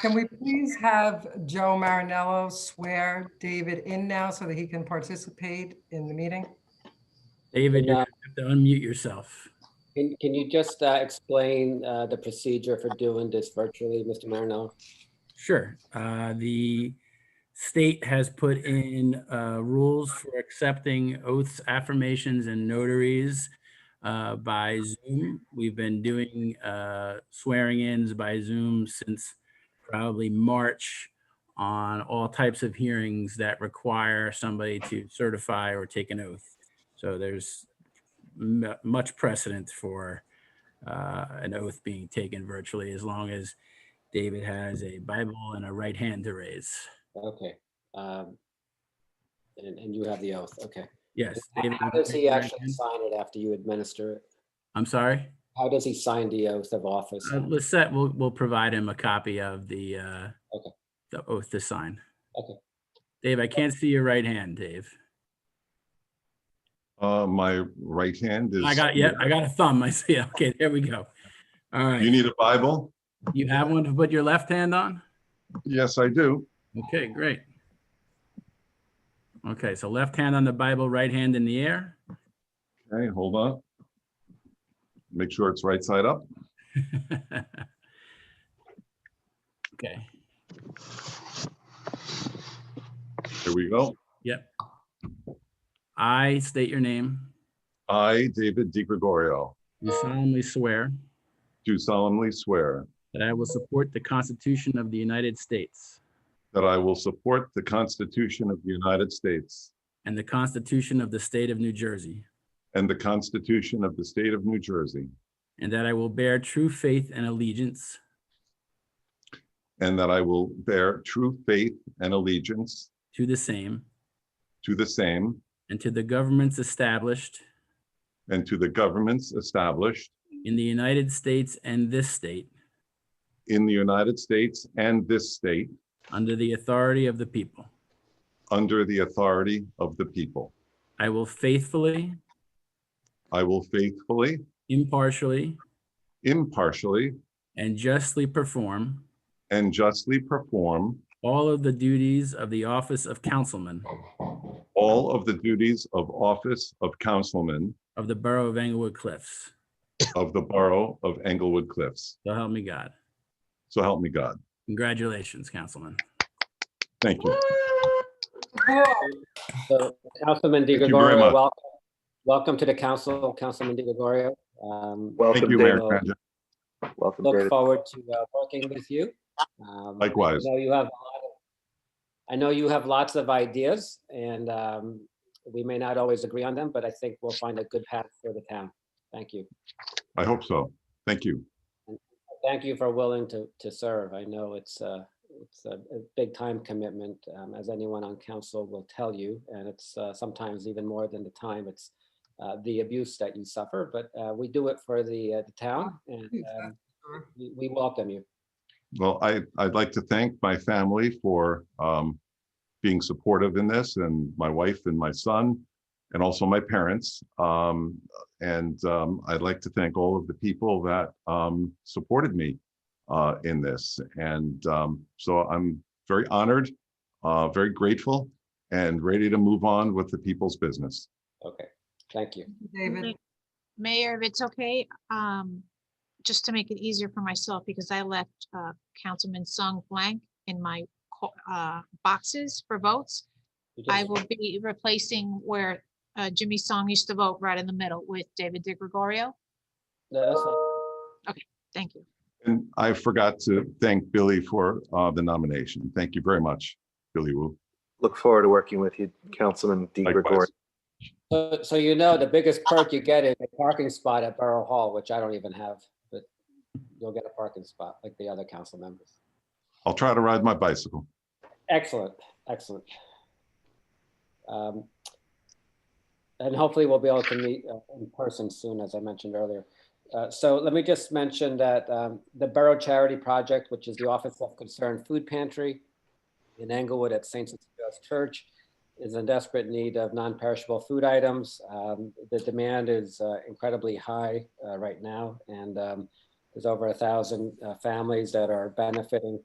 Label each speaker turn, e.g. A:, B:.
A: Can we please have Joe Marinello swear David in now so that he can participate in the meeting?
B: David, you
C: Yeah.
B: have to unmute yourself.
C: Um, Can, can you just uh, explain uh, the procedure for doing this virtually, Mr. Marinello?
B: Sure. Uh, The state has put in uh, rules for accepting oaths, affirmations, and notaries uh, by Zoom. We've been doing uh, swearing-ins by Zoom since probably March on all types of hearings that require somebody to certify or take an oath. So there's mu- much precedent for uh, an oath being taken virtually, as long as David has a Bible and a right hand to raise.
C: Okay. um, And, and you have the oath, okay.
B: Yes. David,
C: How
B: you wanna
C: does
B: take
C: he
B: the right
C: actually
B: hand?
C: sign it after you administer it?
B: I'm sorry.
C: How does he sign the oath of office?
B: Uh, Lisette will, will provide him a copy of the, uh,
C: Okay.
B: the oath to sign.
C: Okay.
B: Dave, I can't see your right hand, Dave.
D: Uh, my right hand is.
B: I got, yeah, I got a thumb. I see. it. Okay, there we go. All
D: You
B: right.
D: need a Bible?
B: You have one to put your left hand on?
D: Yes, I do.
B: Okay, great. Okay, so left hand on the Bible, right hand in the air.
D: Okay, hold on. Make sure it's right side up.
B: Okay,
D: Here we go.
B: I state your name.
D: I, David DiGregorio,
B: Do solemnly swear
D: do solemnly swear
B: that I will support the Constitution of the United States
D: that I will support the Constitution of the United States
B: and the Constitution of the State of New Jersey,
D: and the Constitution of the State of New Jersey,
B: and that I will bear true faith and allegiance
D: and that I will bear true faith and allegiance
B: to the same
D: to the same
B: and to the governments established
D: and to the governments established
B: in the United States and this state
D: in the United States and this state
B: under the authority of the people.
D: under the authority of the people.
B: I will faithfully,
D: I will faithfully,
B: impartially,
D: impartially,
B: and justly perform
D: and justly perform
B: all of the duties of the office of councilman
D: all of the duties of office of councilman
B: of the Borough of Englewood Cliffs.
D: of the Borough of Englewood Cliffs.
B: So help me God.
D: So help me God.
B: Congratulations, Councilman.
D: Thank you.
C: So Councilman Di
D: Thank you very much.
C: Gregorio, welcome. Welcome to the council, Councilman Di Gregorio. Um,
D: Thank
E: Welcome,
D: you, Mayor
E: David.
C: Dave.
D: Krajicek.
E: Welcome,
C: Look
E: David.
C: forward to uh, working with you. Um,
D: Likewise.
C: I know you have, a lot of- I know you have lots of ideas and um, we may not always agree on them, but I think we'll find a good path for the town. Thank you.
D: I hope so. Thank you.
C: Thank you for willing to, to serve. I know it's a, it's a a big time commitment, um, as anyone on council will tell you. And it's uh, sometimes even more than the time, it's uh, the abuse that you suffer, but uh, we do it for the, uh, the town and um, we- we welcome you.
D: Well, I, I'd like to thank my family for um, being supportive in this and my wife and my son and also my parents. Um, And um, I'd like to thank all of the people that um, supported me uh, in this. And um, so I'm very honored, uh, very grateful, and ready to move on with the people's business.
C: Okay, thank you.
A: David,
F: Ma- Mayor, if it's okay, um, just to make it easier for myself, because I left, uh, Councilman Sung blank in my, co- uh, boxes for votes.
C: You
F: I
C: just-
F: will be replacing where, uh, Jimmy Song used to vote right in the middle with David De Gregorio.
C: No, that's fine.
F: Thank you.
D: And I forgot to thank Billy for uh, the nomination. Thank you very much, Billy Wu.
E: Look forward to working with you, Councilman Di
D: Likewise.
E: Gregorio.
C: So, so you know, the biggest perk you get is a parking spot at Borough Hall, which I don't even have, but you'll get a parking spot like the other council members.
D: I'll try to ride my bicycle.
C: Excellent, excellent. Um, And hopefully we'll be able to meet uh, in person soon, as I mentioned earlier. Uh, So let me just mention that um, the Borough Charity Project, which is the Office of Concerned Food Pantry in Englewood at St. Cecilia's Church, is in desperate need of non-perishable food items. Um, The demand is uh, incredibly high uh, right now, and um, there's over a thousand uh, families that are benefiting